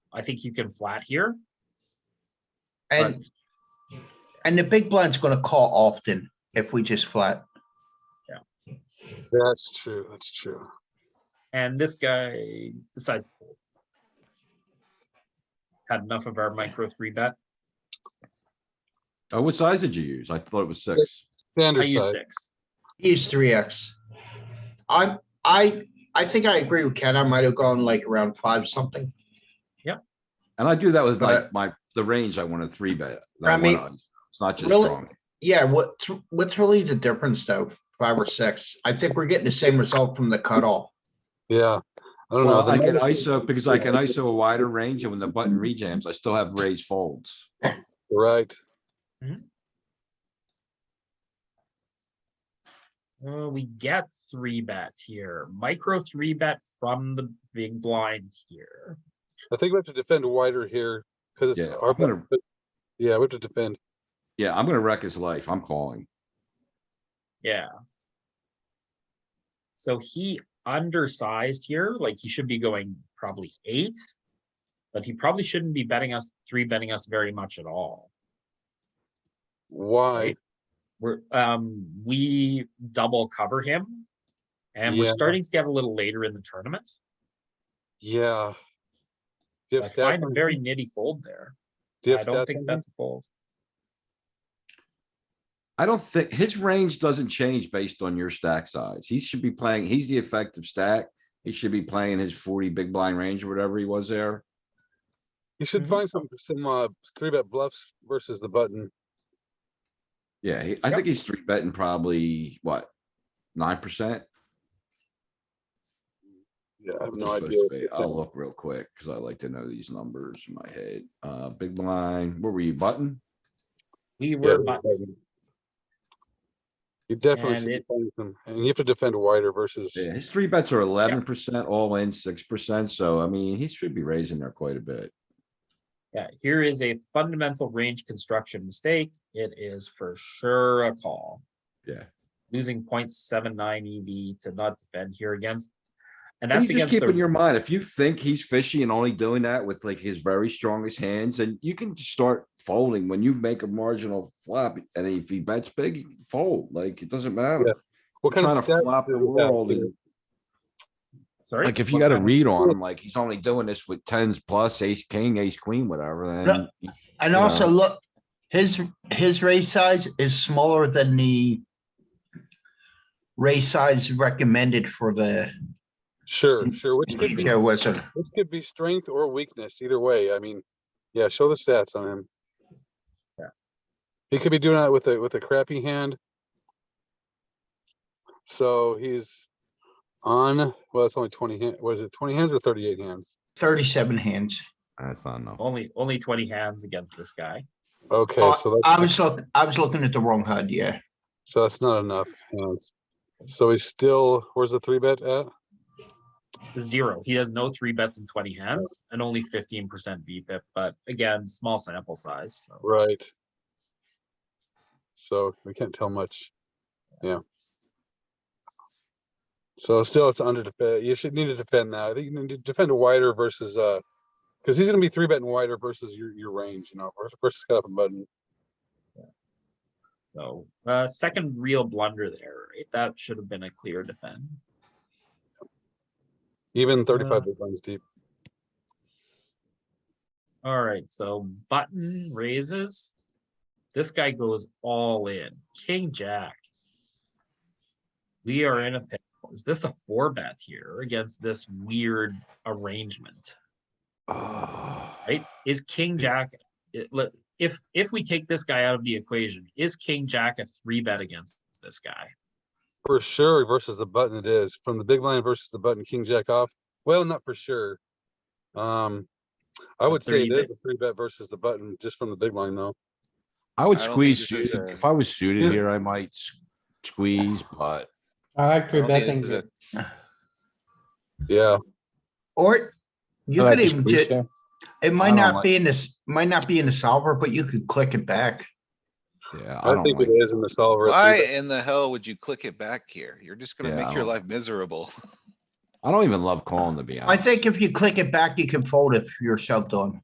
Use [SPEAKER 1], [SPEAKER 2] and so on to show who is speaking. [SPEAKER 1] I think you can flat here.
[SPEAKER 2] And,
[SPEAKER 1] but-
[SPEAKER 2] and the big blind's gonna call often if we just flat.
[SPEAKER 3] That's true, that's true.
[SPEAKER 1] And this guy decides to fold. Had enough of our micro three bet.
[SPEAKER 4] Oh, what size did you use? I thought it was six.
[SPEAKER 1] I
[SPEAKER 3] Standard
[SPEAKER 1] use
[SPEAKER 3] size,
[SPEAKER 1] six.
[SPEAKER 2] He's three X. I'm, I, I think I agree with Ken. I might have gone like around five something.
[SPEAKER 4] And I do that with like
[SPEAKER 2] But-
[SPEAKER 4] my, the range I want to three bet. that
[SPEAKER 2] I
[SPEAKER 4] I
[SPEAKER 2] mean,
[SPEAKER 4] want on. It's not just
[SPEAKER 2] really-
[SPEAKER 4] strong.
[SPEAKER 2] Yeah, what, what's really the difference though? Five or six? I think we're getting the same result from the cutoff.
[SPEAKER 3] yeah. I don't know.
[SPEAKER 4] Well, I
[SPEAKER 3] the
[SPEAKER 4] can
[SPEAKER 3] numbers-
[SPEAKER 4] ISO because I can ISO a wider range and when the button rejams, I still have raised folds.
[SPEAKER 3] Right,
[SPEAKER 1] Uh, we get three bets here. Micro three bet from the big blind here.
[SPEAKER 3] I think we have to defend wider here, because it's
[SPEAKER 4] Yeah,
[SPEAKER 3] our,
[SPEAKER 4] I'm gonna-
[SPEAKER 3] but- yeah, we have to defend.
[SPEAKER 4] Yeah, I'm gonna wreck his life. I'm calling.
[SPEAKER 1] Yeah. So he undersized here, like he should be going probably eight. But he probably shouldn't be betting us, three betting us very much at all.
[SPEAKER 3] Why?
[SPEAKER 1] We're, um, we double cover him. And we're
[SPEAKER 3] Yeah.
[SPEAKER 1] starting to get a little later in the tournament.
[SPEAKER 3] Yeah. Do you
[SPEAKER 1] I
[SPEAKER 3] have stats
[SPEAKER 1] find a
[SPEAKER 3] on-
[SPEAKER 1] very nitty fold there.
[SPEAKER 3] do you
[SPEAKER 1] I
[SPEAKER 3] have
[SPEAKER 1] don't
[SPEAKER 3] stats
[SPEAKER 1] think
[SPEAKER 3] on
[SPEAKER 1] that's a fold.
[SPEAKER 4] I don't think his range doesn't change based on your stack size. He should be playing, he's the effective stack. He should be playing his forty big blind range or whatever he was there.
[SPEAKER 3] You should
[SPEAKER 1] Mhm.
[SPEAKER 3] find some, some, uh, three bet bluffs versus the button.
[SPEAKER 4] Yeah, he- I
[SPEAKER 1] Yep.
[SPEAKER 4] think he's three betting probably what? Nine percent?
[SPEAKER 3] Yeah, I have
[SPEAKER 4] What's
[SPEAKER 3] no
[SPEAKER 4] it supposed
[SPEAKER 3] idea.
[SPEAKER 4] to
[SPEAKER 3] what
[SPEAKER 4] be?
[SPEAKER 3] they
[SPEAKER 4] I'll
[SPEAKER 3] think.
[SPEAKER 4] look real quick, cause I like to know these numbers in my head. Uh, big blind, where were you button?
[SPEAKER 1] We
[SPEAKER 3] Yeah,
[SPEAKER 1] were, but
[SPEAKER 3] button. You definitely
[SPEAKER 1] And
[SPEAKER 3] should
[SPEAKER 1] it-
[SPEAKER 3] defend them, and you have to defend wider versus,
[SPEAKER 4] Yeah, his three bets are eleven percent, all in six percent, so I mean, he should be raising there quite a bit.
[SPEAKER 1] yeah, here is a fundamental range construction mistake. It is for sure a call.
[SPEAKER 4] Yeah.
[SPEAKER 1] Losing 0.79 EV E to not defend here against. And
[SPEAKER 4] And
[SPEAKER 1] that's
[SPEAKER 4] you just
[SPEAKER 1] against
[SPEAKER 4] keep in
[SPEAKER 1] the,
[SPEAKER 4] your mind, if you think he's fishy and only doing that with like his very strongest hands, and you can just start folding when you make a marginal flop. And if he bets big, you can fold, like, it doesn't matter.
[SPEAKER 3] what kind
[SPEAKER 4] Trying
[SPEAKER 3] of
[SPEAKER 4] to
[SPEAKER 3] stats?
[SPEAKER 4] flop
[SPEAKER 3] do
[SPEAKER 4] the
[SPEAKER 3] we have
[SPEAKER 4] world
[SPEAKER 3] here?
[SPEAKER 4] and
[SPEAKER 1] sorry.
[SPEAKER 4] like, if you
[SPEAKER 1] what
[SPEAKER 4] got a
[SPEAKER 1] kind of-
[SPEAKER 4] read on him, like, he's only doing this with tens plus ace, king, ace, queen, whatever, then.
[SPEAKER 2] And
[SPEAKER 4] Yeah.
[SPEAKER 2] also, look, his, his raise size is smaller than the raise size recommended for the
[SPEAKER 3] Sure, sure, which could be,
[SPEAKER 2] PKO wizard.
[SPEAKER 3] which could be strength or weakness, either way, I mean, yeah, show the stats on him.
[SPEAKER 1] Yeah.
[SPEAKER 3] He could be doing that with a, with a crappy hand. So he's on, well, it's only twenty, hand- what is it, twenty hands or thirty-eight hands?
[SPEAKER 2] Thirty-seven hands.
[SPEAKER 4] That's not
[SPEAKER 5] Oh.
[SPEAKER 4] enough.
[SPEAKER 1] Only, only twenty hands against this guy.
[SPEAKER 3] Okay,
[SPEAKER 2] Oh,
[SPEAKER 3] so
[SPEAKER 2] I
[SPEAKER 3] that's,
[SPEAKER 2] was look, I was looking at the wrong HUD, yeah.
[SPEAKER 3] so that's not enough hands. So he's still, where's the three bet at?
[SPEAKER 1] Zero. He has no three bets in twenty hands and only fifteen percent VPIP, but again, small sample size. So
[SPEAKER 3] Right. So we can't tell much. Yeah. So still it's under, defe- you should need to defend that. I think you need to defend wider versus, uh, because he's gonna be three betting wider versus your, your range, you know, versus, versus cut up and button.
[SPEAKER 1] So, uh, second real blunder there, right? That should have been a clear defend.
[SPEAKER 3] Even thirty-five
[SPEAKER 1] Uh,
[SPEAKER 3] big blinds deep.
[SPEAKER 1] Alright, so button raises. This guy goes all in. King Jack. We are in a pickle. Is this a four bet here against this weird arrangement? Right? Is King Jack, it- le- if, if we take this guy out of the equation, is King Jack a three bet against this guy?
[SPEAKER 3] For sure versus the button it is. From the big blind versus the button, king jack off. Well, not for sure. Um, I
[SPEAKER 1] A
[SPEAKER 3] would say
[SPEAKER 1] three
[SPEAKER 3] it is
[SPEAKER 1] bet.
[SPEAKER 3] a three bet versus the button, just from the big blind though.
[SPEAKER 4] I would
[SPEAKER 5] I don't think
[SPEAKER 4] squeeze,
[SPEAKER 5] this is
[SPEAKER 4] suited.
[SPEAKER 5] a-
[SPEAKER 4] if I was
[SPEAKER 2] Yeah.
[SPEAKER 4] suited here, I might s- squeeze, but
[SPEAKER 6] I like
[SPEAKER 5] I
[SPEAKER 6] three
[SPEAKER 5] don't think
[SPEAKER 6] betting.
[SPEAKER 5] this is a-
[SPEAKER 3] Yeah,
[SPEAKER 2] Or you could even, ju- it
[SPEAKER 4] I
[SPEAKER 2] might
[SPEAKER 4] don't
[SPEAKER 2] not
[SPEAKER 4] like-
[SPEAKER 2] be in this, might not be in the solver, but you could click it back.
[SPEAKER 4] yeah, I
[SPEAKER 3] I
[SPEAKER 4] don't
[SPEAKER 3] think it
[SPEAKER 4] like.
[SPEAKER 3] is in the solver. a three
[SPEAKER 5] Why
[SPEAKER 3] bet.
[SPEAKER 5] in the hell would you click it back here? You're just gonna
[SPEAKER 4] Yeah, I
[SPEAKER 5] make your
[SPEAKER 4] don't-
[SPEAKER 5] life miserable.
[SPEAKER 4] I don't even love calling to be honest.
[SPEAKER 2] I think if you click it back, you can fold if you're shoved on.